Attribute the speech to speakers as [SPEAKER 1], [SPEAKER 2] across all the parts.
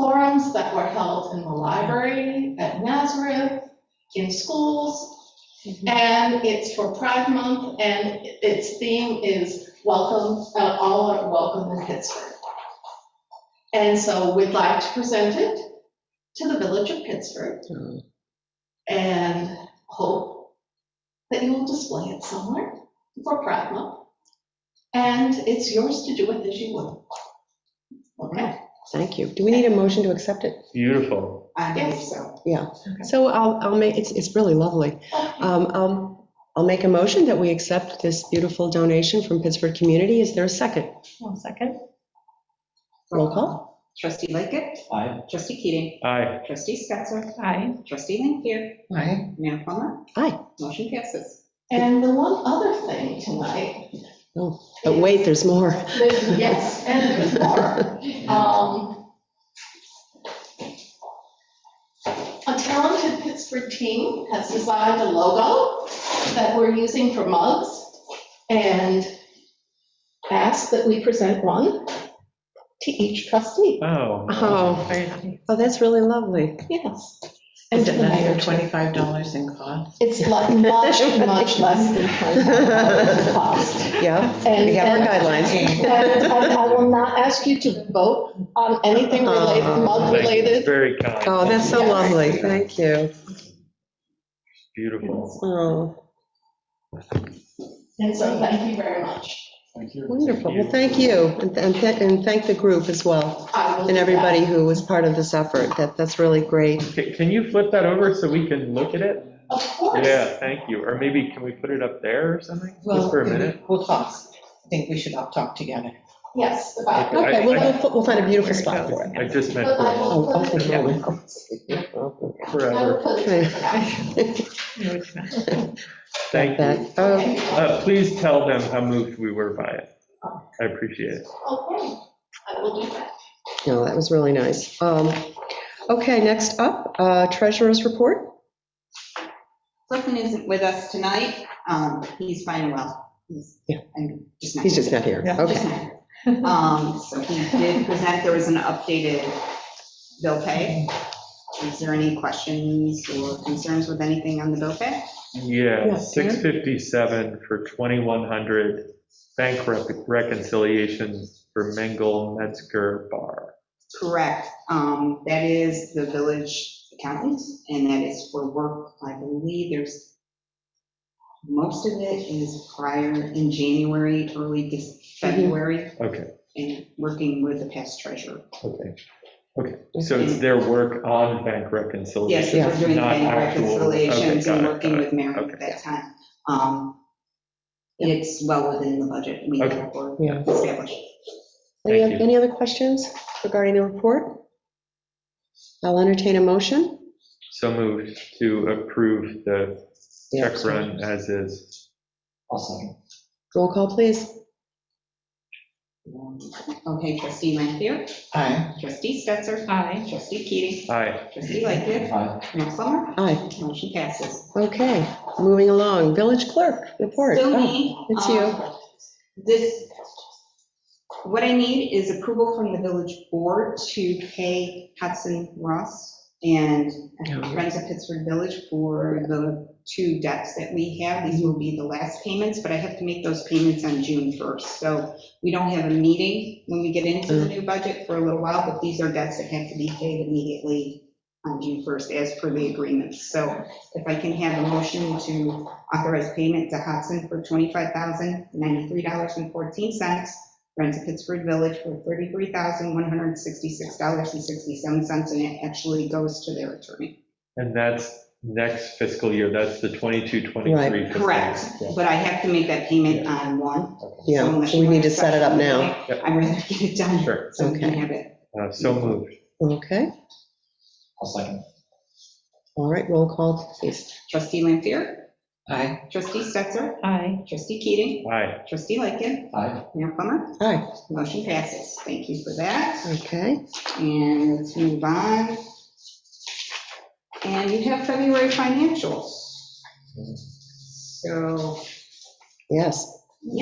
[SPEAKER 1] forums that were held in the library, at Nazareth, in schools. And it's for Pride Month, and its theme is welcome, uh, all are welcome in Pittsburgh. And so we'd like to present it to the village of Pittsburgh
[SPEAKER 2] Oh,
[SPEAKER 1] and hope that you will display it somewhere for Pride Month. And it's yours to do with as you will. Okay,
[SPEAKER 2] Thank you. Do we need a motion to accept it?
[SPEAKER 3] Beautiful.
[SPEAKER 1] I think so.
[SPEAKER 2] So I'll, I'll make, it's, it's really lovely. Um, um, I'll make a motion that we accept this beautiful donation from Pittsburgh Community. Is there a second?
[SPEAKER 4] One second.
[SPEAKER 2] Roll call?
[SPEAKER 5] Trustee Lightkit,
[SPEAKER 3] Aye.
[SPEAKER 5] trustee Keating,
[SPEAKER 3] Aye.
[SPEAKER 5] trustee Spencer,
[SPEAKER 4] Aye.
[SPEAKER 5] trustee Lanfair,
[SPEAKER 2] Aye.
[SPEAKER 5] Mayor Plummer.
[SPEAKER 2] Aye.
[SPEAKER 5] Motion passes.
[SPEAKER 1] And the one other thing tonight.
[SPEAKER 2] Oh, But wait, there's more.
[SPEAKER 4] Oh,
[SPEAKER 1] There's- Yes, and there's more. Um, A talented Pittsburgh team has designed a logo that we're using for mugs and asked that we present one to each trustee.
[SPEAKER 3] Oh.
[SPEAKER 2] Oh,
[SPEAKER 4] Very happy.
[SPEAKER 2] oh, that's really lovely.
[SPEAKER 1] Yes. And
[SPEAKER 6] Is
[SPEAKER 1] to
[SPEAKER 6] it
[SPEAKER 1] the mayor,
[SPEAKER 6] another
[SPEAKER 1] too.
[SPEAKER 6] twenty-five dollars in cost?
[SPEAKER 1] It's like much, much less than $25 cost.
[SPEAKER 2] Yeah,
[SPEAKER 1] And-
[SPEAKER 2] we have our guidelines.
[SPEAKER 6] Okay.
[SPEAKER 1] And and I will not ask you to vote on anything related,
[SPEAKER 2] Oh.
[SPEAKER 1] mug
[SPEAKER 3] Thank you.
[SPEAKER 1] related.
[SPEAKER 3] Very kind.
[SPEAKER 2] Oh, that's so
[SPEAKER 1] Yeah.
[SPEAKER 2] lovely. Thank you.
[SPEAKER 3] Beautiful.
[SPEAKER 2] Oh,
[SPEAKER 1] And so thank you very much.
[SPEAKER 2] wonderful. Well, thank you. And, and thank- and thank the group as well
[SPEAKER 1] I will do
[SPEAKER 2] and
[SPEAKER 1] that.
[SPEAKER 2] everybody who was part of this effort. That, that's really great.
[SPEAKER 3] Ca- Can you flip that over so we can look at it?
[SPEAKER 1] Of course.
[SPEAKER 3] Yeah, thank you. Or maybe can we put it up there or something? Just for a minute?
[SPEAKER 6] We'll talk. I think we should all talk together.
[SPEAKER 1] Yes, about.
[SPEAKER 3] I-
[SPEAKER 2] Okay, we'll,
[SPEAKER 3] I-
[SPEAKER 2] we'll- we'll find a beautiful spot for it.
[SPEAKER 3] I just meant
[SPEAKER 1] But I
[SPEAKER 3] for-
[SPEAKER 1] will
[SPEAKER 2] Oh,
[SPEAKER 1] put it,
[SPEAKER 2] okay,
[SPEAKER 3] yeah.
[SPEAKER 1] I will
[SPEAKER 3] forever.
[SPEAKER 1] put it. back.
[SPEAKER 4] No, it's not.
[SPEAKER 3] Thank you.
[SPEAKER 2] That- oh,
[SPEAKER 3] Uh, Please tell them how moved we were by it. I appreciate it.
[SPEAKER 1] Okay, I will do that.
[SPEAKER 2] No, that was really nice. Um, Okay, next up, uh, treasurer's report.
[SPEAKER 5] Clifton isn't with us tonight. Um, He's fine and well. He's-
[SPEAKER 2] Yeah.
[SPEAKER 5] I'm just not.
[SPEAKER 2] He's just not here.
[SPEAKER 4] Yeah.
[SPEAKER 2] Okay.
[SPEAKER 5] Um, So he did present, there was an updated bill pay. Is there any questions or concerns with anything on the bill pay?
[SPEAKER 3] Yeah,
[SPEAKER 2] Yes, ma'am.
[SPEAKER 3] 657 for 2100 bank rec- reconciliations for Mengel Metzger Bar.
[SPEAKER 5] Correct. Um, That is the village accountant, and that is for work, I believe there's, most of it is prior in January, early Dec-
[SPEAKER 2] Mm-hmm.
[SPEAKER 5] February,
[SPEAKER 3] Okay,
[SPEAKER 5] and working with the past treasurer.
[SPEAKER 3] okay, okay. So it's their work on bank
[SPEAKER 5] Yes,
[SPEAKER 3] reconciliation,
[SPEAKER 5] we're doing the
[SPEAKER 3] not
[SPEAKER 5] bank
[SPEAKER 3] actual.
[SPEAKER 5] reconciliations
[SPEAKER 3] okay, got
[SPEAKER 5] and
[SPEAKER 3] it,
[SPEAKER 5] working
[SPEAKER 3] got it.
[SPEAKER 5] with Mary
[SPEAKER 3] okay.
[SPEAKER 5] at that time. Um, It's well within the budget we
[SPEAKER 3] Okay.
[SPEAKER 5] have for
[SPEAKER 2] Yeah.
[SPEAKER 5] established.
[SPEAKER 2] Any,
[SPEAKER 3] Thank you.
[SPEAKER 2] any other questions regarding the report? I'll entertain a motion.
[SPEAKER 3] So moved to approve the check run as is.
[SPEAKER 2] Roll call, please.
[SPEAKER 5] Okay, trustee Lanfair,
[SPEAKER 6] Aye.
[SPEAKER 5] trustee Stetser,
[SPEAKER 4] Aye.
[SPEAKER 5] trustee Keating,
[SPEAKER 3] Aye,
[SPEAKER 5] trustee Lightgev, Mayor Plummer,
[SPEAKER 2] Aye.
[SPEAKER 5] motion passes.
[SPEAKER 2] Okay, moving along. Village clerk report.
[SPEAKER 5] Still
[SPEAKER 2] Oh,
[SPEAKER 5] me.
[SPEAKER 2] it's you.
[SPEAKER 5] um, This, what I need is approval from the village board to pay Hudson Ross and Friends of Pittsburgh Village for the two debts that we have. These will be the last payments, but I have to make those payments on June 1st. So we don't have a meeting when we get into the new budget for a little while, but these are debts that have to be paid immediately on June 1st as per the agreement. So if I can have a motion to Authorized payment to Hudson for $25,093.14. Friends of Pittsburgh Village for $33,166.67, and it actually goes to their attorney.
[SPEAKER 3] and that's next fiscal year, that's the 22, 23 fiscal.
[SPEAKER 5] Correct,
[SPEAKER 3] year.
[SPEAKER 5] but I have to make that payment on one. so
[SPEAKER 2] Yeah,
[SPEAKER 5] unless
[SPEAKER 2] so we
[SPEAKER 5] you
[SPEAKER 2] need to
[SPEAKER 5] want
[SPEAKER 2] set it up now.
[SPEAKER 5] it I'd rather get it done,
[SPEAKER 3] Sure,
[SPEAKER 5] so we can
[SPEAKER 2] Okay.
[SPEAKER 5] have it.
[SPEAKER 3] Uh, so moved.
[SPEAKER 2] Okay,
[SPEAKER 7] I'll second.
[SPEAKER 2] all right, roll call, please.
[SPEAKER 5] Trustee Lampier,
[SPEAKER 6] Aye.
[SPEAKER 5] trustee Stetser,
[SPEAKER 4] Aye.
[SPEAKER 5] trustee Keating,
[SPEAKER 3] Aye,
[SPEAKER 5] trustee Lightgev,
[SPEAKER 7] Aye.
[SPEAKER 5] Mayor Plummer.
[SPEAKER 2] Aye,
[SPEAKER 5] Motion passes. Thank you for that.
[SPEAKER 2] okay.
[SPEAKER 5] And let's move on. And you have February financials. So
[SPEAKER 2] Yes,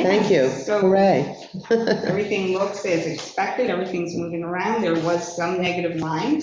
[SPEAKER 2] Thank you.
[SPEAKER 5] So
[SPEAKER 2] Hooray.
[SPEAKER 5] everything looks as expected, everything's moving around. There was some negative lines,